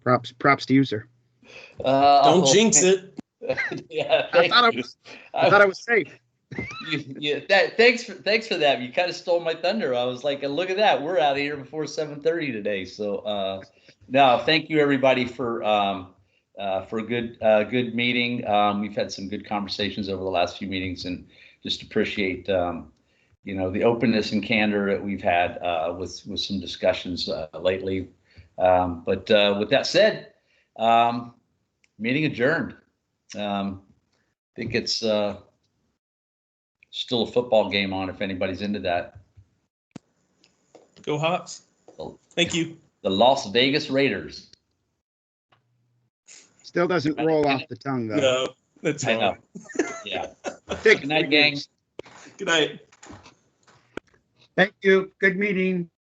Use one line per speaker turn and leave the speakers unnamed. Props, props to you, sir.
Uh,
Don't
oh,
jinx it.
yeah,
I
thank
thought I
you.
was, I thought I was safe.
you, you, that, thanks for thanks for that. You kind of stole my thunder. I was like, look at that, we're out of here before seven thirty today. So uh, no, thank you everybody for um, uh, for a good uh, good meeting. Um, we've had some good conversations over the last few meetings, and just appreciate um, you know the openness and candor that we've had uh, with with some discussions uh, lately. Um, but uh, with that said, um, meeting adjourned. Um, I think it's. Uh, still a football game on if anybody's into that.
Go Hawks. Thank you.
The Las Vegas Raiders.
Still doesn't roll off the tongue though.
No, that's
I know.
all.
Yeah.
Take
Good night,
three
gang.
years.
Good night.
Thank you. Good meeting.